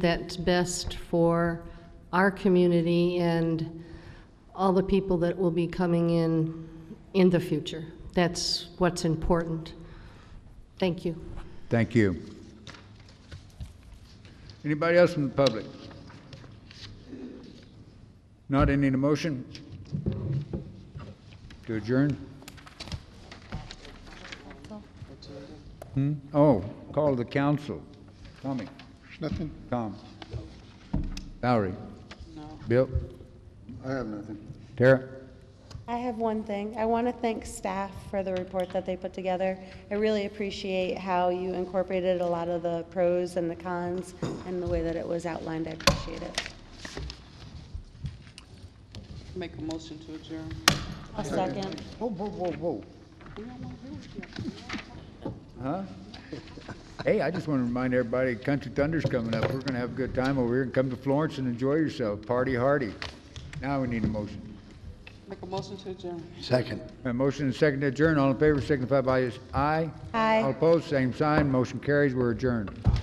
that's best for our community and all the people that will be coming in in the future. That's what's important. Thank you. Thank you. Anybody else from the public? Not any motion? To adjourn? Hmm? Oh, call the council. Tommy, Nothing? Tom. Valerie. Bill. I have nothing. Tara. I have one thing. I want to thank staff for the report that they put together. I really appreciate how you incorporated a lot of the pros and the cons and the way that it was outlined. I appreciate it. Make a motion to adjourn. A second. Whoa, whoa, whoa, whoa. Huh? Hey, I just want to remind everybody, Country Thunder's coming up. We're gonna have a good time over here and come to Florence and enjoy yourself. Party hardy. Now we need a motion. Make a motion to adjourn. Second. A motion and second to adjourn. All in favor signify by aye. Aye. All opposed, same sign. Motion carries. We're adjourned.